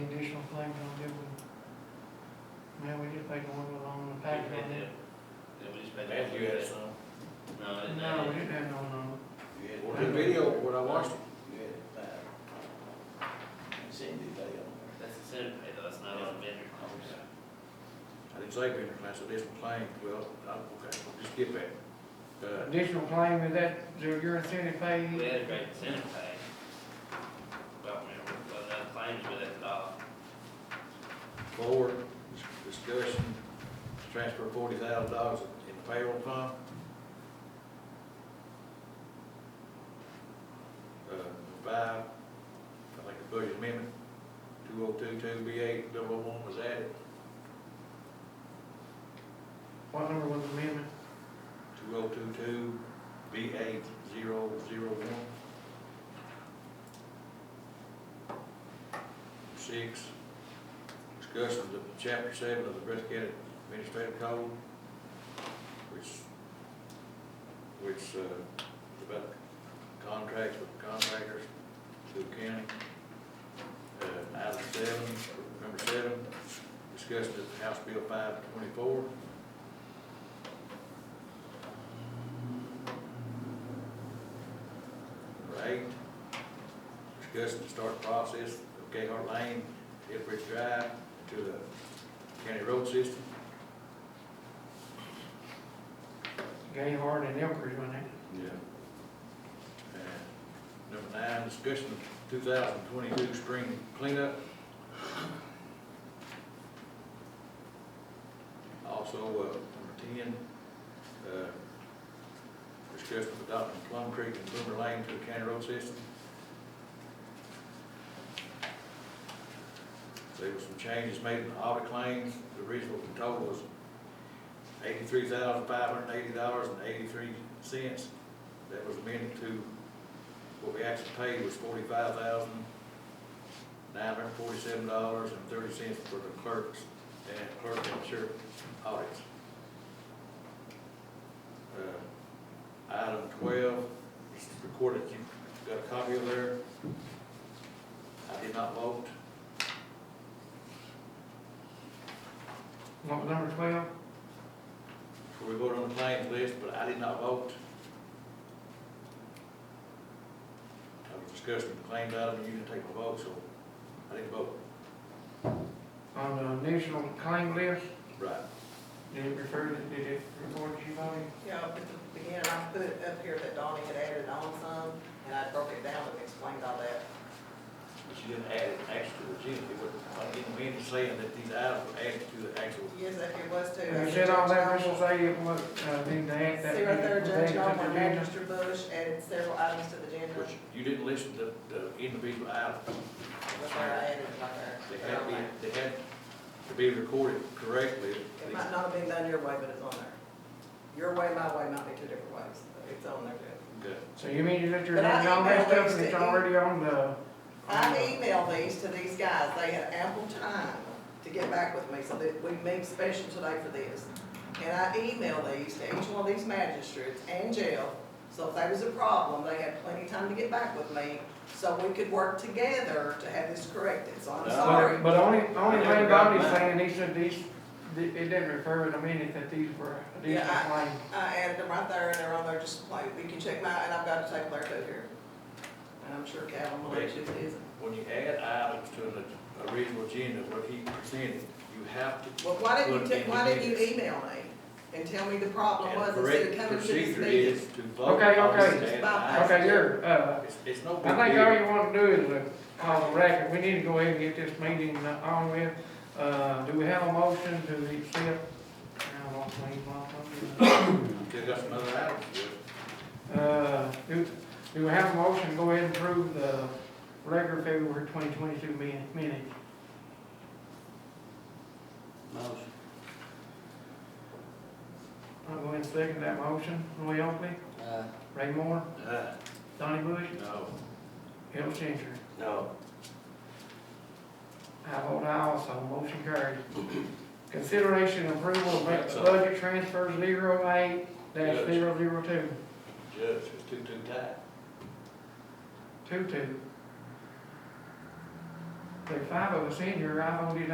if they can work along the Yeah, pack down there. we just made that. Matthew had some. No, I didn't No, have we it. didn't have no, no. You had Well, one. the video, when I watched it, You had five. And Cindy, they on That's the center pay though, that's not on the vendor. I didn't say vendor class, additional claim, well, I, okay, we'll just get back. Uh, Additional claim is that, your your incentive pay, We had a great incentive pay. Well, we were, the claims with it, uh, board discussion, transfer forty thousand dollars in payroll fund. Uh, five, I think the budget amendment, two oh two, two B eight, double oh one was added, what number was the amendment? two oh two, two B eight, zero, zero one. Six, discussion of the chapter seven of the Breath County Administrative Code, which, which, uh, is about contracts with contractors to the county. Uh, item seven, number seven, discussion of House Bill five twenty-four. Number eight, discuss the start process of Gayheart Lane, Hillbridge Drive to the county road system. Gayhard and Elkridge, wasn't it? Yeah. And number nine, discussion of two thousand twenty-two spring cleanup. Also, uh, number ten, uh, discussion of adopting Plum Creek and Boomer Lane to the county road system. There were some changes made in the audit claims, the original total was eighty-three thousand five hundred and eighty dollars and eighty-three cents. That was amended to, what we actually paid was forty-five thousand nine hundred and forty-seven dollars and thirty cents for the clerks and clerk and sheriff audits. Uh, Item twelve, it's recorded, you've got a copy of there. I did not vote. What, number twelve? So we voted on the claims list, but I did not vote. I was discussing the claims item, and you didn't take my vote, so I didn't vote. On the initial claim list, Right. did it refer, to- did it report you voted? Yeah, at the beginning, I put it up here that Donnie had added on some, and I broke it down and explained all that. But you didn't add it actually to the agenda, it was, I didn't mean to say that these items were added to the actual. Yes, if it was to. You said all that, Mr. Say, what, uh, need to add that. See right there, Judge that- that- Norman, that- Mr. Bush added several items to the agenda, But you didn't listen to the individual items. that's why I added it like that. They had to be, they had to be recorded correctly. It might not have been done your way, but it's on there. Your way, my way might be two different ways, but it's on there, Judge. Okay. So you mean you let your But I name on that emailed stuff these and it's to you. already on the? I emailed these to these guys, they had ample time to get back with me, so that we made special today for this. And I emailed these to each one of these magistrates and jail, so if there was a problem, they had plenty of time to get back with me, so we could work together to have this corrected, so I'm No. sorry. But only, only Never thing got Bonnie's mine. saying, he said these, it didn't refer in a minute that these were additional Yeah, I- claims. I added them right there, and they're on there just plain, you can check my, and I've got a tape there too here. And I'm sure Calvin will let you, is, When you add items to an original agenda, what he presented, you have to well, why didn't you, Put it ta- in why the didn't you minutes. email me and tell me the problem was And instead correct of coming to this procedure meeting? is to vote. Okay, on okay. the stand Bye. item. Okay, you're, uh, It's, it's no big I deal. think all you wanna do is uh, call the record, we need to go ahead and get this meeting uh, on with. Uh, do we have a motion to accept? I lost my email from Still got some other items, you. Uh, do, do we have a motion, to go ahead and approve the record February twenty twenty-two minutes? Motion. I'll go ahead and second that motion. Roy Oakley, Ray Moore, but, uh, Donnie Bush, no. Hill Changer. No. I vote aye also, motion carried. Consideration and approval That's of all. budget transfer zero eight dash Yes. zero zero two, Judge, it's too, too tight. two two. There are five of us in here, I voted